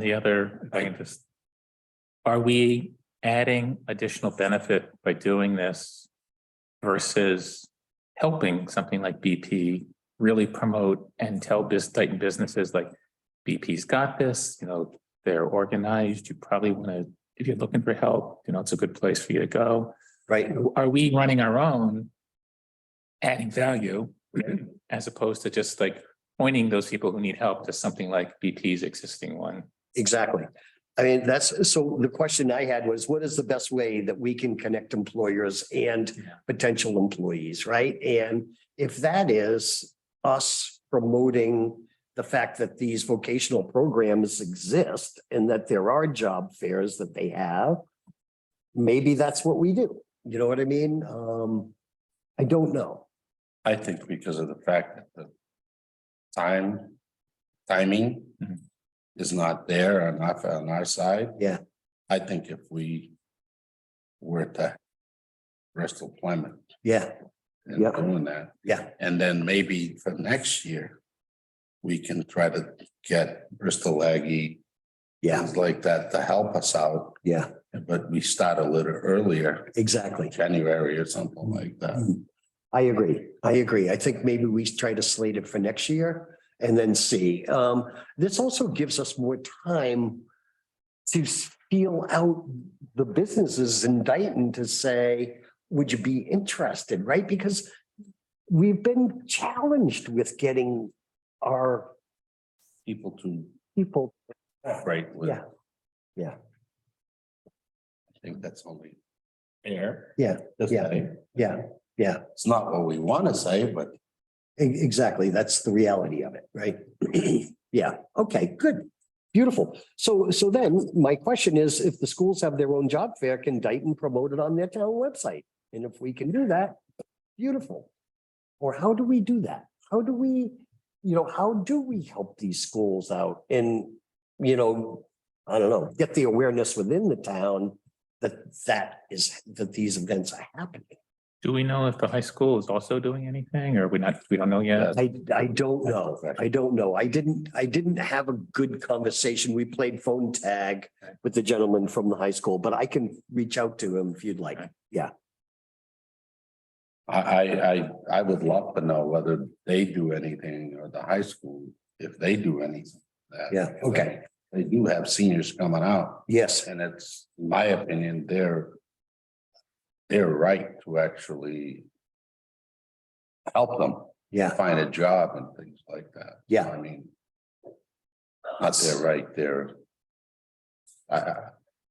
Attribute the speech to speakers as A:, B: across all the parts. A: The other, if I can just. Are we adding additional benefit by doing this? Versus helping something like BP really promote and tell this Titan businesses like. BP's got this, you know, they're organized, you probably wanna, if you're looking for help, you know, it's a good place for you to go.
B: right?
A: Are we running our own? Adding value as opposed to just like pointing those people who need help to something like BP's existing one.
B: Exactly. I mean, that's, so the question I had was, what is the best way that we can connect employers and
A: Yeah.
B: potential employees, right? And if that is us promoting the fact that these vocational programs exist and that there are job fairs that they have, maybe that's what we do. You know what I mean? Um, I don't know.
C: I think because of the fact that the time, timing
A: Mhm.
C: is not there on our, on our side.
B: Yeah.
C: I think if we were to rest employment
B: Yeah,
C: and
B: Yeah.
C: doing that,
B: yeah,
C: and then maybe for next year, we can try to get Bristol Aggie,
B: yeah,
C: things like that to help us out,
B: yeah,
C: but we start a little earlier,
B: exactly.
C: January or something like that.
B: Mm. I agree. I agree. I think maybe we try to slate it for next year and then see. Um, this also gives us more time to feel out the businesses in Dayton to say, would you be interested, right? Because we've been challenged with getting our
C: People to
B: people,
C: operate with.
B: Yeah. Yeah.
C: I think that's only fair.
B: Yeah,
C: to
B: yeah.
C: say.
B: yeah, yeah,
C: It's not what we want to say, but
B: e- exactly. That's the reality of it, right? Yeah, okay, good. Beautiful. So, so then my question is, if the schools have their own job fair, can Dayton promote it on their town website? And if we can do that, beautiful. Or how do we do that? How do we, you know, how do we help these schools out and, you know, I don't know, get the awareness within the town that that is, that these events are happening?
A: Do we know if the high school is also doing anything or we not, we don't know yet?
B: I, I don't know. I don't know. I didn't, I didn't have a good conversation. We played phone tag with the gentleman from the high school, but I can reach out to him if you'd like.
C: I, I, I, I would love to know whether they do anything or the high school, if they do anything. that-
B: Yeah, okay.
C: They do have seniors coming out
B: Yes,
C: and it's, in my opinion, they're, they're right to actually help them
B: yeah,
C: find a job and things like that.
B: yeah,
C: I mean. Not there, right there. I, I,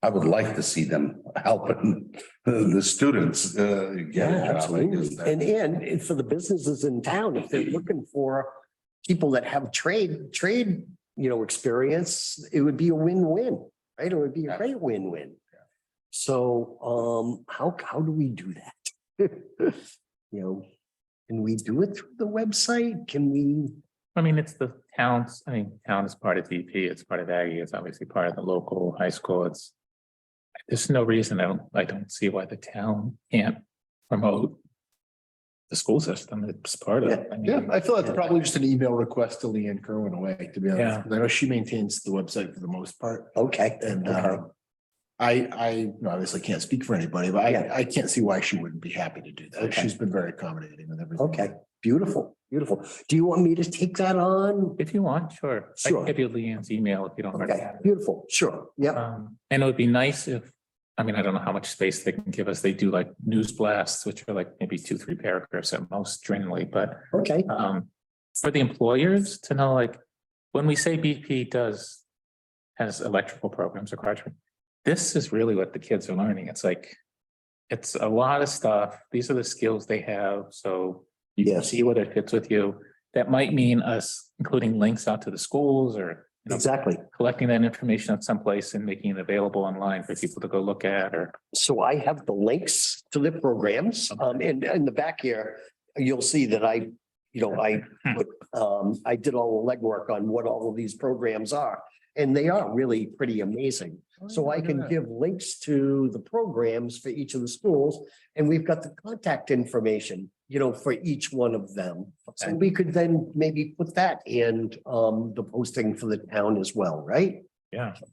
C: I would like to see them helping the students, uh,
B: yeah,
C: get a job. I guess
B: absolutely.
C: that-
B: And, and it's for the businesses in town, if they're looking for people that have trade, trade, you know, experience, it would be a win-win, right? It would be a great win-win. So, um, how, how do we do that? You know, can we do it through the website? Can we?
A: I mean, it's the towns, I mean, town is part of DP, it's part of Aggie, it's obviously part of the local high school, it's. There's no reason, I don't, I don't see why the town can't promote. The school system, it's part of. I mean,
D: Yeah, I feel that's probably just an email request to Leanne Kerwin away, to be
A: Yeah.
D: honest. 'cause I know she maintains the website for the most part
B: Okay.
D: and
B: okay.
D: uh. I, I you know, obviously can't speak for anybody, but
B: Yeah.
D: I, I can't see why she wouldn't be happy to do that.
B: Okay.
D: She's been very accommodating with everything.
B: Okay, beautiful, beautiful. Do you want me to take that on?
A: If you want, sure. I can
B: Sure.
A: give you Leanne's email if you don't already
B: Okay,
A: have it.
B: beautiful, sure, yeah,
A: Um, and it would be nice if, I mean, I don't know how much space they can give us, they do like news blasts, which are like maybe two, three paragraphs at most generally, but.
B: okay,
A: um, for the employers to know, like, when we say BP does, has electrical programs or classroom, this is really what the kids are learning. It's like, it's a lot of stuff. These are the skills they have, so you can
B: Yes.
A: see whether it fits with you. That might mean us including links out to the schools or, you know,
B: exactly.
A: collecting that information at some place and making it available online for people to go look at or
B: So I have the links to the programs, um, in, in the back here, you'll see that I, you know, I put, um, I did all the legwork on what all of these programs are, and they are really pretty amazing. So I can give links to the programs for each of the schools, and we've got the contact information, you know, for each one of them. So
A: Okay.
B: we could then maybe put that in um the posting for the town as well, right?
A: Yeah.